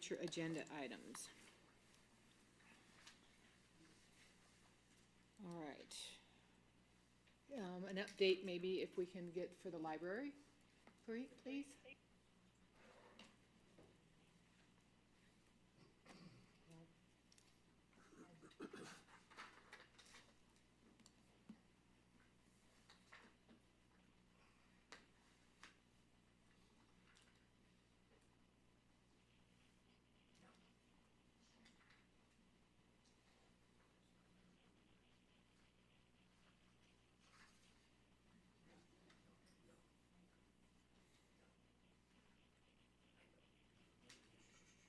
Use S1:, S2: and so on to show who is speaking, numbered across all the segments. S1: future agenda items. All right. Um, an update maybe if we can get for the library, pre- please?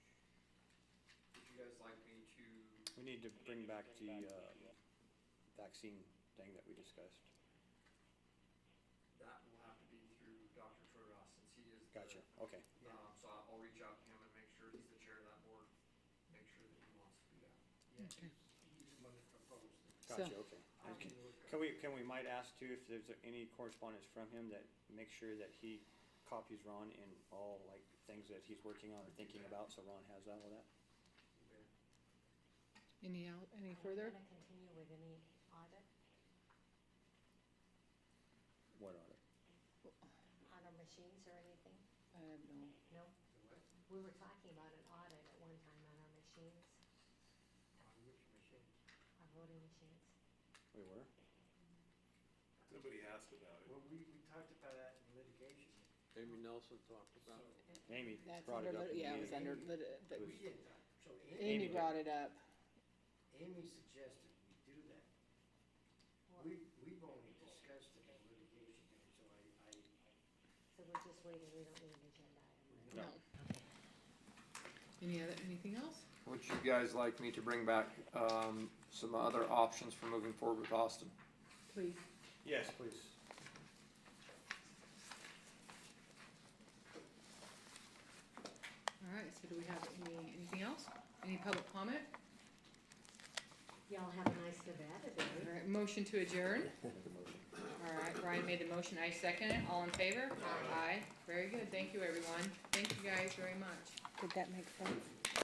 S2: Would you guys like me to,
S3: We need to bring back the, uh, vaccine thing that we discussed.
S2: that will have to be through Dr. Troy since he is the.
S3: Gotcha, okay.
S2: Um, so I'll I'll reach out to him and make sure, he's the chair of that board, make sure that he wants to do that.
S1: Okay. So-
S3: Gotcha, okay.
S2: I
S3: Okay.
S2: can look
S3: Can
S2: up-
S3: we, can we might ask too if there's any correspondence from him that make sure that he copies Ron in all like things that he's working on or thinking about, so Ron has all of that?
S2: okay.
S1: Any, el- any
S4: Are we
S1: further?
S4: gonna continue with any audit
S3: What are they?
S4: on our machines or anything?
S1: I have no,
S4: No?
S2: The what?
S4: We were talking about an audit at one time on our machines,
S2: On which machine?
S4: our voting machines.
S3: We were?
S5: Nobody asked about it.
S2: Well, we, we talked about that in litigation.
S6: Amy Nelson talked about it.
S3: Amy
S1: that's
S3: brought
S1: under, lit-
S3: it up. in the
S1: yeah, it was
S3: meeting.
S1: under, lit- but
S3: It
S2: We
S3: was-
S2: did that, so
S1: Amy
S2: Amy,
S3: did.
S1: brought it up.
S2: Amy suggested we do that.
S4: Well,
S2: We, we've only discussed it in litigation, and so I, I,
S4: So we're just waiting, we don't need an agenda item.
S1: No. Any other, anything else?
S2: Would you guys like me to bring back, um, some other options for moving forward with Austin?
S1: Please.
S3: Yes, please.
S1: All right, so do we have any, anything else? Any public comment?
S4: Y'all have a nice Nevada day.
S1: All right, motion to adjourn? All right, Brian made the motion, I second it, all in favor? Aye. Very good, thank you, everyone, thank you guys very much.
S7: Did that make sense?